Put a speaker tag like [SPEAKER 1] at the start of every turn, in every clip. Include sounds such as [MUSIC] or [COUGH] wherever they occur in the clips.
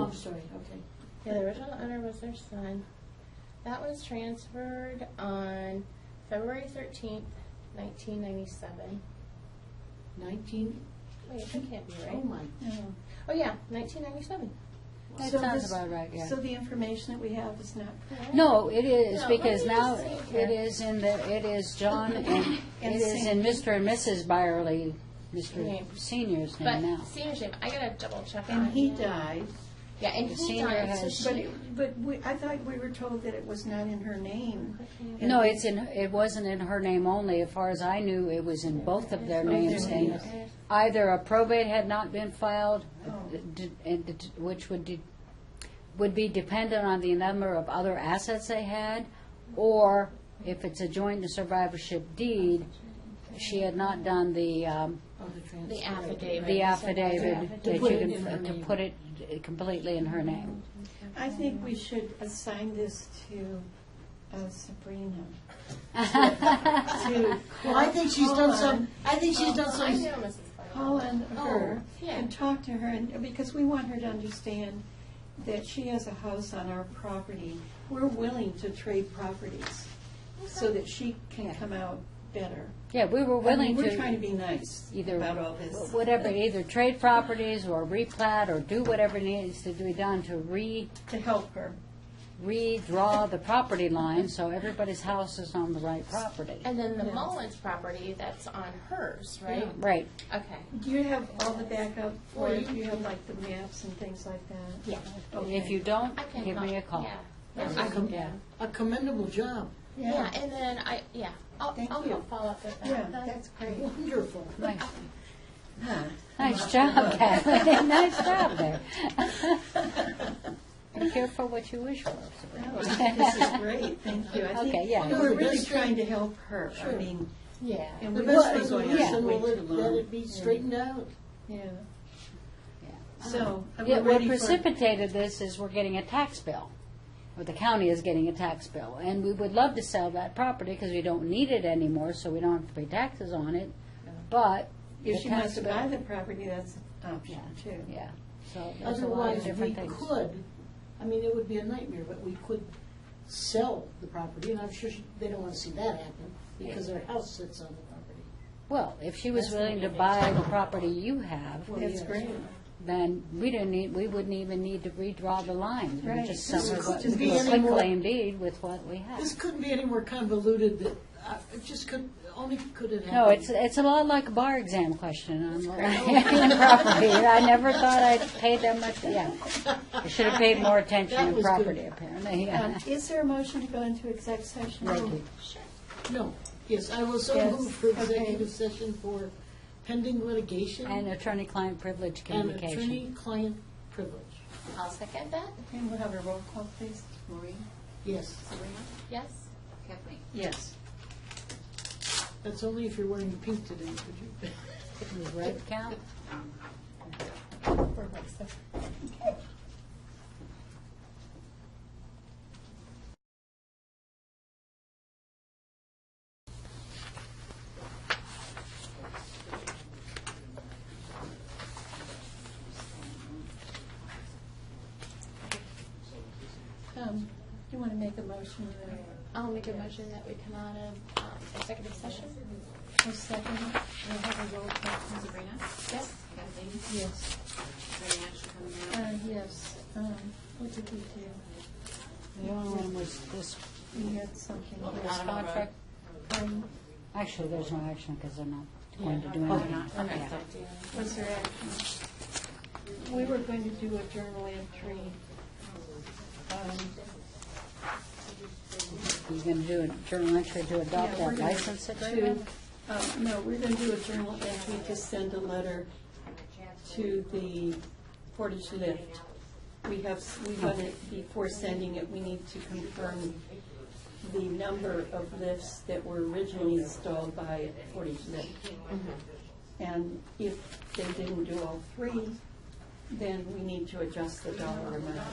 [SPEAKER 1] Oh, sorry, okay.
[SPEAKER 2] Yeah, the original owner was their son. That was transferred on February thirteenth, nineteen ninety-seven.
[SPEAKER 1] Nineteen,
[SPEAKER 2] Wait, that can't be
[SPEAKER 1] oh
[SPEAKER 2] right.
[SPEAKER 1] my.
[SPEAKER 2] Oh, yeah, nineteen ninety-seven.
[SPEAKER 3] That
[SPEAKER 4] So
[SPEAKER 3] sounds
[SPEAKER 4] this-
[SPEAKER 3] about right, yeah.
[SPEAKER 4] So the information that we have is not correct?
[SPEAKER 3] No, it is,
[SPEAKER 2] No,
[SPEAKER 3] because
[SPEAKER 2] let me
[SPEAKER 3] now
[SPEAKER 2] just see
[SPEAKER 3] it
[SPEAKER 2] here.
[SPEAKER 3] is in the, it is John and,
[SPEAKER 4] And
[SPEAKER 3] it is in Mr. and Mrs. Byerly, Mr.
[SPEAKER 2] Name.
[SPEAKER 3] Senior's name
[SPEAKER 2] But
[SPEAKER 3] now.
[SPEAKER 2] senior's name, I gotta double check on
[SPEAKER 1] And he
[SPEAKER 2] it.
[SPEAKER 1] died.
[SPEAKER 2] Yeah, and he
[SPEAKER 3] Senior
[SPEAKER 2] died, so
[SPEAKER 3] has-
[SPEAKER 2] she.
[SPEAKER 4] But, it- but we, I thought we were told that it was not in her name.
[SPEAKER 3] No, it's in, it wasn't in her name only, as far as I knew, it was in both of their names. and Either a probate had not been filed,
[SPEAKER 4] Oh.
[SPEAKER 3] d- and d- which would, de- would be dependent on the number of other assets they had, or if it's a joint survivorship deed, she had not done the, um,
[SPEAKER 1] Oh, the transfer.
[SPEAKER 2] The affidavit.
[SPEAKER 3] the
[SPEAKER 2] is that-
[SPEAKER 3] affidavit
[SPEAKER 1] To
[SPEAKER 3] that
[SPEAKER 1] put it
[SPEAKER 3] you
[SPEAKER 1] in her
[SPEAKER 3] can, to
[SPEAKER 1] name.
[SPEAKER 3] put it completely in her name.
[SPEAKER 4] I think we should assign this to uh,
[SPEAKER 1] [LAUGHS]
[SPEAKER 4] Sabrina. To
[SPEAKER 1] Well, I think she's done some,
[SPEAKER 4] Colin-
[SPEAKER 1] I think she's done
[SPEAKER 2] Oh, I
[SPEAKER 1] some,
[SPEAKER 2] know Mrs. Fleming.
[SPEAKER 4] Colin, her,
[SPEAKER 2] Oh, yeah.
[SPEAKER 4] and talk to her, and because we want her to understand that she has a house on our property. We're willing to trade properties so that she can come out better.
[SPEAKER 3] [LAUGHS] Yeah, we were willing
[SPEAKER 4] I mean, we're trying to be
[SPEAKER 3] to,
[SPEAKER 4] nice
[SPEAKER 3] either-
[SPEAKER 4] about all this.
[SPEAKER 3] whatever, either trade properties or replat or do whatever needs to be done to re,
[SPEAKER 4] To help her.
[SPEAKER 3] redraw the property line so everybody's house is on the right property.
[SPEAKER 2] And then the Mullins property, that's on hers, right?
[SPEAKER 3] Right.
[SPEAKER 2] Okay.
[SPEAKER 4] Do you have all the backup for it? Do you have like the maps and things like that?
[SPEAKER 2] Yeah.
[SPEAKER 3] If you don't,
[SPEAKER 2] I can.
[SPEAKER 3] give me a call.
[SPEAKER 2] Yeah.
[SPEAKER 1] That's
[SPEAKER 2] I
[SPEAKER 1] a
[SPEAKER 2] can-
[SPEAKER 1] com-
[SPEAKER 3] Yeah.
[SPEAKER 1] a commendable job.
[SPEAKER 2] Yeah, and then I, yeah, I'll,
[SPEAKER 4] Thank
[SPEAKER 2] I'll
[SPEAKER 4] you.
[SPEAKER 2] follow up with that.
[SPEAKER 4] Yeah, that's great.
[SPEAKER 1] Wonderful.
[SPEAKER 3] Nice
[SPEAKER 1] Huh.
[SPEAKER 3] nice job, [LAUGHS] Kathleen, nice job [LAUGHS] there. Be careful what you wish for. [LAUGHS]
[SPEAKER 4] No, I think Oh, This is great, thank you. I think
[SPEAKER 3] Okay, yeah.
[SPEAKER 4] We're really
[SPEAKER 1] Sure.
[SPEAKER 4] trying to help her. I
[SPEAKER 1] Sure.
[SPEAKER 4] mean,
[SPEAKER 2] Yeah.
[SPEAKER 4] and
[SPEAKER 1] The
[SPEAKER 4] we
[SPEAKER 1] best
[SPEAKER 4] want
[SPEAKER 1] thing
[SPEAKER 4] to
[SPEAKER 1] going
[SPEAKER 4] go
[SPEAKER 1] to
[SPEAKER 4] out.
[SPEAKER 1] happen,
[SPEAKER 4] We
[SPEAKER 1] we'll
[SPEAKER 4] did
[SPEAKER 1] let let
[SPEAKER 4] learn.
[SPEAKER 1] it be straightened out.
[SPEAKER 4] Yeah.
[SPEAKER 3] Yeah.
[SPEAKER 4] So, are we
[SPEAKER 3] Yeah, what
[SPEAKER 4] ready for?
[SPEAKER 3] precipitated this is we're getting a tax bill, or the county is getting a tax bill, and we would love to sell that property because we don't need it anymore, so we don't have to pay taxes on it, but.
[SPEAKER 4] If
[SPEAKER 3] the
[SPEAKER 4] she
[SPEAKER 3] tax
[SPEAKER 4] wants to
[SPEAKER 3] bill-
[SPEAKER 4] buy the property, that's an option
[SPEAKER 3] Yeah,
[SPEAKER 4] too.
[SPEAKER 3] yeah, so there's a lot of
[SPEAKER 1] Otherwise, we
[SPEAKER 3] different things.
[SPEAKER 1] could, I mean, it would be a nightmare, but we could sell the property, and I'm sure she- they don't want to see that happen, because their house sits on the property.
[SPEAKER 3] Well, if she was
[SPEAKER 1] That's
[SPEAKER 3] willing to
[SPEAKER 1] the-
[SPEAKER 3] buy the property you have,
[SPEAKER 1] Well,
[SPEAKER 4] That's
[SPEAKER 1] yes.
[SPEAKER 4] great.
[SPEAKER 3] then we didn't need, we wouldn't even need to redraw the lines. We
[SPEAKER 4] Right.
[SPEAKER 3] just
[SPEAKER 4] This
[SPEAKER 3] sell her
[SPEAKER 1] couldn't
[SPEAKER 3] what,
[SPEAKER 1] be any
[SPEAKER 3] quick
[SPEAKER 1] more-
[SPEAKER 3] claim deed with what we
[SPEAKER 1] This
[SPEAKER 3] have.
[SPEAKER 1] couldn't be any more convoluted that, uh, it just could, only could it happen.
[SPEAKER 3] No, it's, it's a lot like a bar exam question on [LAUGHS] land property. I never thought I paid that much, yeah. I should have paid more attention
[SPEAKER 1] That
[SPEAKER 3] to
[SPEAKER 1] was
[SPEAKER 3] property,
[SPEAKER 1] good.
[SPEAKER 3] apparently,
[SPEAKER 4] Um,
[SPEAKER 3] yeah.
[SPEAKER 4] Is there a motion to go into exec session?
[SPEAKER 3] Right.
[SPEAKER 1] No, yes, I will so
[SPEAKER 4] Yes,
[SPEAKER 1] move for
[SPEAKER 4] okay.
[SPEAKER 1] executive session for pending
[SPEAKER 3] And
[SPEAKER 1] litigation
[SPEAKER 3] attorney-client privilege
[SPEAKER 1] and
[SPEAKER 3] communication.
[SPEAKER 1] attorney-client privilege.
[SPEAKER 2] I'll second that.
[SPEAKER 4] Okay, we'll have a roll call, please. Maureen?
[SPEAKER 1] Yes,
[SPEAKER 2] Yes.
[SPEAKER 4] Yes.
[SPEAKER 1] that's only if you're wearing pink today, could you?
[SPEAKER 3] Does red count?
[SPEAKER 2] For myself.
[SPEAKER 4] Um, Do you want to make a motion?
[SPEAKER 2] I'll make a motion that we come out of um, executive session.
[SPEAKER 4] A second? We'll have a roll call. please.
[SPEAKER 5] Sabrina?
[SPEAKER 2] Yes.
[SPEAKER 5] Kathleen?
[SPEAKER 4] Yes.
[SPEAKER 5] Any action coming out?
[SPEAKER 4] Uh, yes, um, what did we do?
[SPEAKER 3] The only one was this,
[SPEAKER 4] We had something.
[SPEAKER 3] this contract.
[SPEAKER 4] Um,
[SPEAKER 3] Actually, there's no action because they're not going to do anything. Yeah.
[SPEAKER 4] Was there action? We were going to do a journal entry. Um,
[SPEAKER 3] You gonna do a journal entry to adopt
[SPEAKER 4] Yeah, we're
[SPEAKER 3] that
[SPEAKER 4] gonna
[SPEAKER 3] license
[SPEAKER 4] to,
[SPEAKER 3] agreement?
[SPEAKER 4] um, no, we're going to do a journal entry to send a letter to the Portage Lift. We have, we want it, before sending it, we need to confirm the number of lifts that were originally installed by Portage Lift.
[SPEAKER 3] Mm-hmm.
[SPEAKER 4] And if they didn't do all three, then we need to adjust the dollar amount.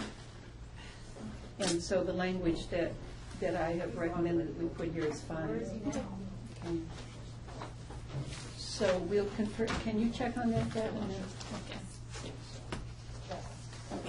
[SPEAKER 4] And so the language that, that I have recommended that we put here is fine. Okay. So we'll confirm, can you check on that, Deb? and then-